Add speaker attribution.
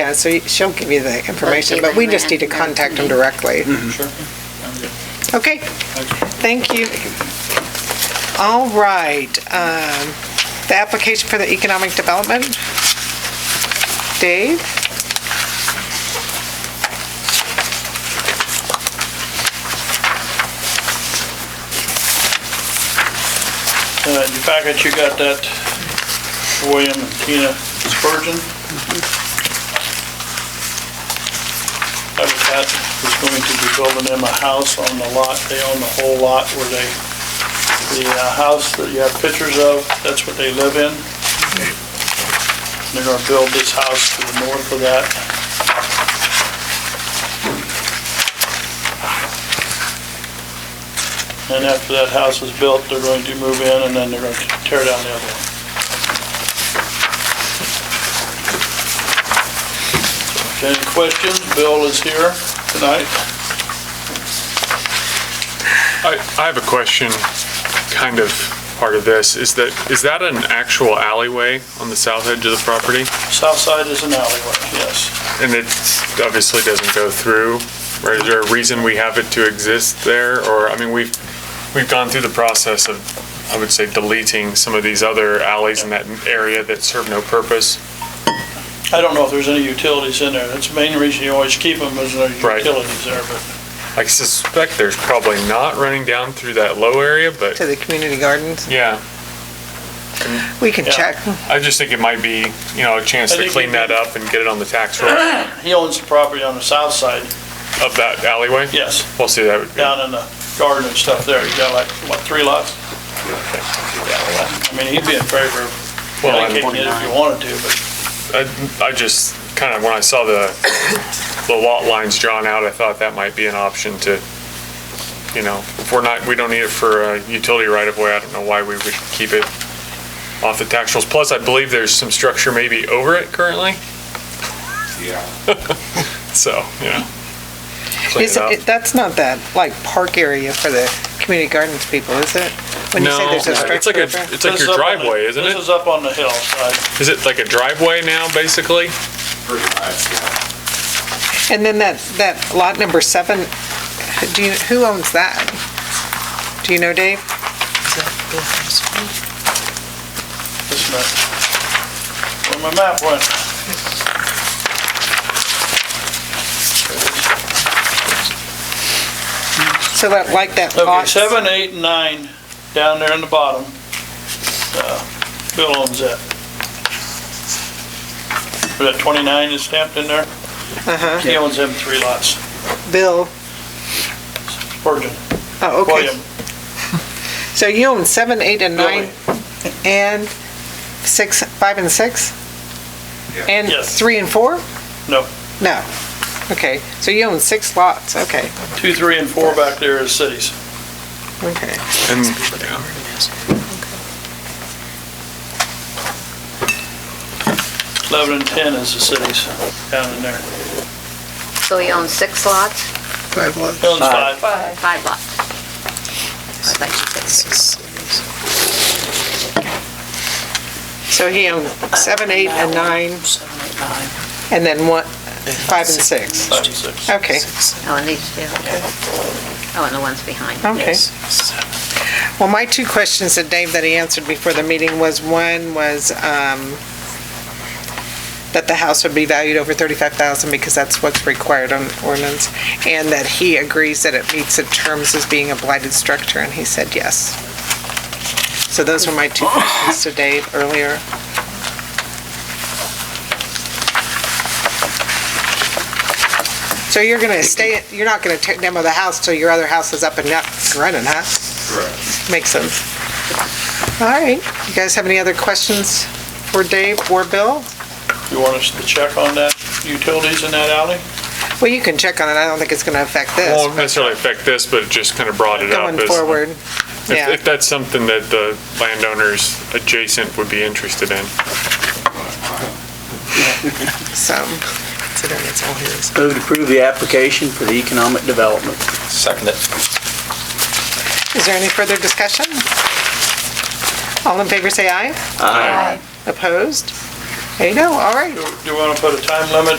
Speaker 1: Yeah, so y- she'll give you the information, but we just need to contact them directly.
Speaker 2: Hmm.
Speaker 3: Sure.
Speaker 1: Okay, thank you. All right, um, the application for the economic development. Dave?
Speaker 3: Uh, In your packet, you got that William and Tina Spurgeon. That was that was going to be building them a house on the lot, they own the whole lot where they, the uh, house that you have pictures of, that's what they live in. They're gonna build this house to the north of that. And after that house is built, they're going to move in, and then they're going to tear down the other one. Any questions? Bill is here tonight.
Speaker 2: I, I have a question, kind of part of this, is that, is that an actual alleyway on the south edge of the property?
Speaker 3: South side is an alleyway, yes.
Speaker 2: And it obviously doesn't go through, or is there a reason we have it to exist there? Or, I mean, we've, we've gone through the process of, I would say, deleting some of these other alleys in that area that serve no purpose.
Speaker 3: I don't know if there's any utilities in there. That's the main reason you always keep them, is there's
Speaker 2: Right.
Speaker 3: utilities there, but
Speaker 2: I suspect there's probably not running down through that low area, but,
Speaker 1: To the community gardens?
Speaker 2: yeah.
Speaker 1: We can
Speaker 3: Yeah.
Speaker 1: check.
Speaker 2: I just think it might be, you know, a chance
Speaker 3: I
Speaker 2: to
Speaker 3: think
Speaker 2: clean
Speaker 3: we-
Speaker 2: that up and get it on the tax roll
Speaker 3: he owns the property on the south side,
Speaker 2: of that alleyway.
Speaker 3: yes,
Speaker 2: We'll see, that would be.
Speaker 3: down in the garden and stuff there. You got like, what, three lots? I mean, he'd be in favor of
Speaker 2: Well,
Speaker 3: dedicating it if you wanted to, but
Speaker 2: I, I just, kind of, when I saw the, the lot lines drawn out, I thought that might be an option to, you know, if we're not, we don't need it for a utility right of way, I don't know why we would keep it off the tax rolls. Plus, I believe there's some structure maybe over it currently,
Speaker 4: Yeah,
Speaker 2: so, you know. Clean
Speaker 1: Is
Speaker 2: it up.
Speaker 1: it, that's not that, like, park area for the community gardens people, is it? When you say
Speaker 2: No,
Speaker 1: there's a
Speaker 2: it's like
Speaker 1: structure
Speaker 2: a,
Speaker 1: there?
Speaker 2: it's like
Speaker 3: This is
Speaker 2: your
Speaker 3: up on the-
Speaker 2: driveway, isn't
Speaker 3: This
Speaker 2: it?
Speaker 3: is up on the hill side.
Speaker 2: Is it like a driveway now, basically?
Speaker 4: pretty much, yeah.
Speaker 1: And then that, that lot number seven, do you, who owns that? Do you know, Dave?
Speaker 3: This map. Where my map went.
Speaker 1: So that, like that
Speaker 3: Okay,
Speaker 1: lot.
Speaker 3: seven, eight, and nine, down there in the bottom. Uh, Bill owns that. Where that twenty-nine is stamped in there,
Speaker 1: Uh-huh,
Speaker 3: he owns them three lots.
Speaker 1: Bill,
Speaker 3: Virgin,
Speaker 1: oh, okay.
Speaker 3: William,
Speaker 1: So you own seven, eight, and
Speaker 3: Billy.
Speaker 1: nine, and six, five and six?
Speaker 4: Yeah.
Speaker 1: And
Speaker 3: Yes.
Speaker 1: three and four?
Speaker 3: No.
Speaker 1: No, okay, so you own six lots, okay,
Speaker 3: Two, three, and four back there is cities.
Speaker 1: okay.
Speaker 2: And
Speaker 3: Eleven and ten is the cities down in there.
Speaker 5: So he owns six lots,
Speaker 3: He owns five.
Speaker 5: five lots? I thought you said six.
Speaker 1: So he owned seven, eight, and nine,
Speaker 6: Seven, eight, nine.
Speaker 1: and then one, five and six,
Speaker 3: Five and six.
Speaker 1: okay,
Speaker 5: Oh, and these two. Oh, and the ones behind.
Speaker 1: okay. Well, my two questions that Dave, that he answered before the meeting was, one was, um, that the house would be valued over thirty-five thousand because that's what's required on ordinance, and that he agrees that it meets the terms as being a blighted structure, and he said yes. So those were my two questions to Dave earlier. So you're gonna stay, you're not gonna te- demo the house till your other house is up and up and running, huh?
Speaker 4: Correct.
Speaker 1: Makes sense. All right, you guys have any other questions for Dave or Bill?
Speaker 3: You want us to check on that, utilities in that alley?
Speaker 1: Well, you can check on it, I don't think it's gonna affect
Speaker 2: won't
Speaker 1: this,
Speaker 2: necessarily affect this, but it just kind of brought it
Speaker 1: but
Speaker 2: up.
Speaker 1: going
Speaker 2: as-
Speaker 1: forward,
Speaker 2: If,
Speaker 1: yeah.
Speaker 2: if that's something that the landowners adjacent would be interested in.
Speaker 1: so.
Speaker 7: Move to approve the application for the economic development.
Speaker 4: Second it.
Speaker 1: Is there any further discussion? All in favor, say aye.
Speaker 5: Aye.
Speaker 1: Opposed? There you go, all right.
Speaker 3: Do you want to put a time limit